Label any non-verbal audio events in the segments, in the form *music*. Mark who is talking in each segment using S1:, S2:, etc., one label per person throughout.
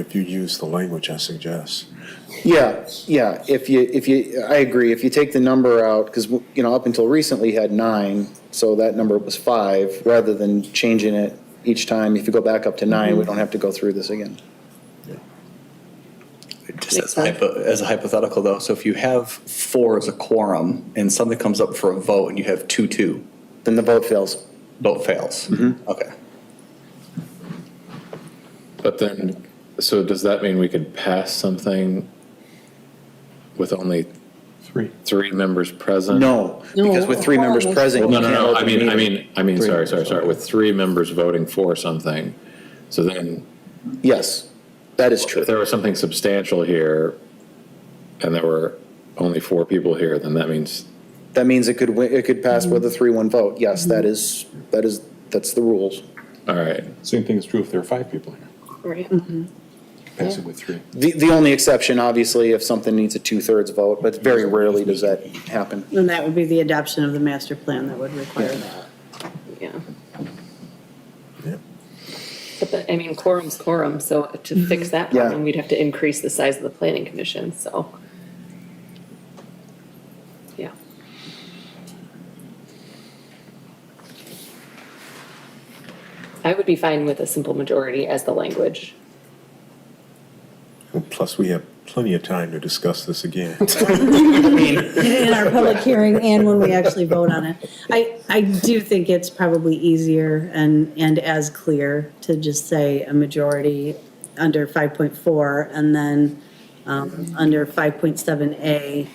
S1: If you use the language I suggest.
S2: Yeah, yeah, if you, if you, I agree, if you take the number out, because, you know, up until recently you had nine, so that number was five, rather than changing it each time, if you go back up to nine, we don't have to go through this again.
S3: Just as
S4: Makes
S3: a, hypo, as a hypothetical, though, so if you have four as a quorum and something comes up for a vote and you have two, two,
S2: Then the vote fails.
S3: vote fails. Okay.
S5: But then, so does that mean we could pass something with only
S1: Three.
S5: three members present?
S2: No, because with three members
S4: No.
S2: present.
S5: No,
S2: you
S5: no,
S2: can't
S5: no,
S2: open
S5: I
S2: the
S5: mean, I
S2: meeting.
S5: mean, I mean, sorry, sorry, sorry, with three members voting for something. So then,
S2: Yes, that is true.
S5: if there was something substantial here and there were only four people here, then that means,
S2: That means it could, wi- it could pass with a three-one vote, yes, that is, that is, that's the rules.
S5: all right.
S6: Same thing is true if there are five people here.
S4: Right.
S6: Pass it with three.
S2: The, the only exception, obviously, if something needs a two-thirds vote, but very rarely does that happen.
S4: And that would be the adoption of the master plan that would require that.
S7: Yeah,
S1: Yeah.
S7: but the, I mean, quorum's quorum, so to fix that
S2: Yeah.
S7: problem, we'd have to increase the size of the planning commission, so. Yeah, I would be fine with a simple majority as the language.
S1: And Plus, we have plenty of time to discuss this again.
S4: In our public hearing and when we actually vote on it. I, I do think it's probably easier and, and as clear to just say a majority under five point four and then, um, under five point seven A,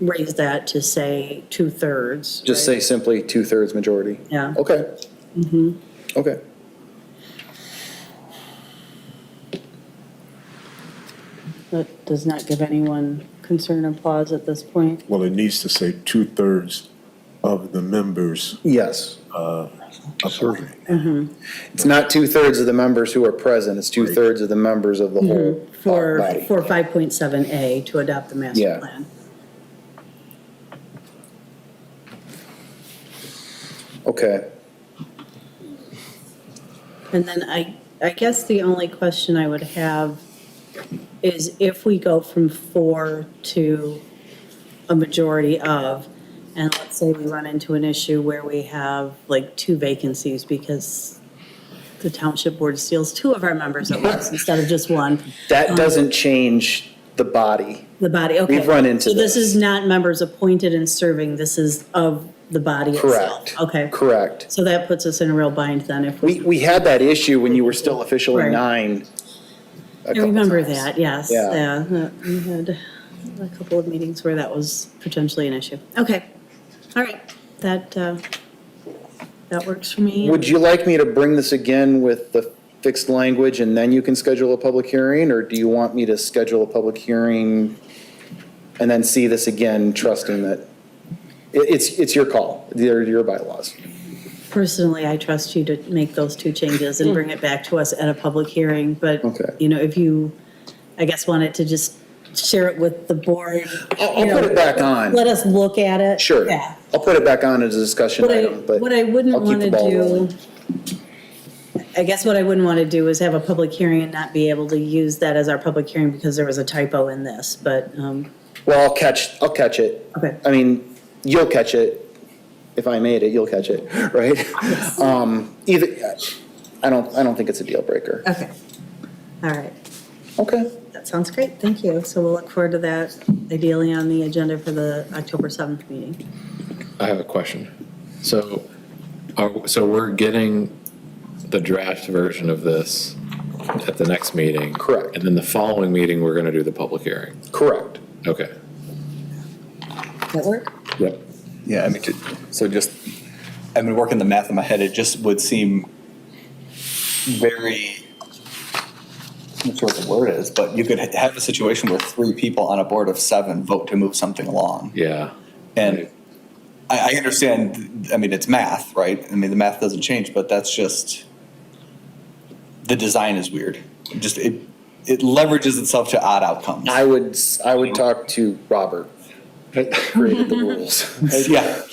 S4: raise that to say two-thirds.
S2: Just
S4: right?
S2: say simply two-thirds majority.
S4: Yeah. Mm-hmm.
S2: Okay. Okay.
S4: That does not give anyone concern or pause at this point.
S1: Well, it needs to say two-thirds of the members
S2: Yes.
S1: appointed.
S2: It's not two-thirds of the members who are present, it's two-thirds of the members of the whole
S4: Mm-hmm. For,
S2: body.
S4: for five point seven A to adopt the master
S2: Yeah.
S4: plan.
S2: Okay.
S4: And then I, I guess the only question I would have is if we go from four to a majority of, and let's say we run into an issue where we have like two vacancies because the township board steals two of our members at once instead of just one,
S2: That doesn't change the body.
S4: the body, okay.
S2: We've run into
S4: So this
S2: this.
S4: is not members appointed and serving, this is of the body itself.
S2: Correct.
S4: Okay.
S2: Correct.
S4: So that puts us in a real bind then if
S2: We,
S4: we,
S2: we had that issue when you were still officially
S4: Right.
S2: nine. a
S4: I
S2: couple
S4: remember
S2: times.
S4: that, yes.
S2: Yeah.
S4: that- We had a couple of meetings where that was potentially an issue. Okay, all right, that, uh, that works for me.
S2: Would you like me to bring this again with the fixed language and then you can schedule a public hearing? Or do you want me to schedule a public hearing and then see this again, trusting that? It, it's, it's your call, they're your bylaws.
S4: Personally, I trust you to make those two changes and bring it back to us at a public hearing, but,
S2: Okay.
S4: you know, if you, I guess, wanted to just share it with the board.
S2: I'll, I'll
S4: you
S2: put
S4: know,
S2: it back on,
S4: Let us look at it.
S2: sure.
S4: Yeah.
S2: I'll put it back on as a discussion
S4: What I,
S2: item, but.
S4: what I wouldn't
S2: I'll keep
S4: want
S2: the
S4: to
S2: ball rolling.
S4: do, I guess what I wouldn't want to do is have a public hearing and not be able to use that as our public hearing because there was a typo in this, but, um,
S2: Well, I'll catch, I'll catch it.
S4: Okay.
S2: I mean, you'll catch it. If I made it, you'll catch it, *laughs* right? Um, either, I don't, I don't think it's a deal breaker.
S4: okay. All right,
S2: Okay.
S4: that sounds great, thank you. So we'll look forward to that ideally on the agenda for the October 7th meeting.
S5: I have a question. So, are, so we're getting the draft version of this at the next meeting?
S2: Correct.
S5: And then the following meeting, we're gonna do the public hearing?
S2: Correct.
S5: Okay.
S4: That work?
S5: Yep.
S3: Yeah, I mean, to- so just, I've been working the math in my head, it just would seem very, I'm not sure what the word is, but you could ha- have a situation where three people on a board of seven vote to move something along.
S5: Yeah.
S3: And I, I understand, I mean, it's math, right? I mean, the math doesn't change, but that's just, the design is weird. It Just, it, it leverages itself to odd outcomes.
S2: I would, s- I would talk to Robert. Created the rules.
S3: Yeah. *laughs*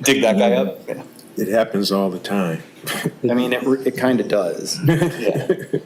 S3: Dig that guy up. Yeah.
S1: It happens all the time. *laughs*
S2: I mean, it, re- it kind of does.
S3: Yeah.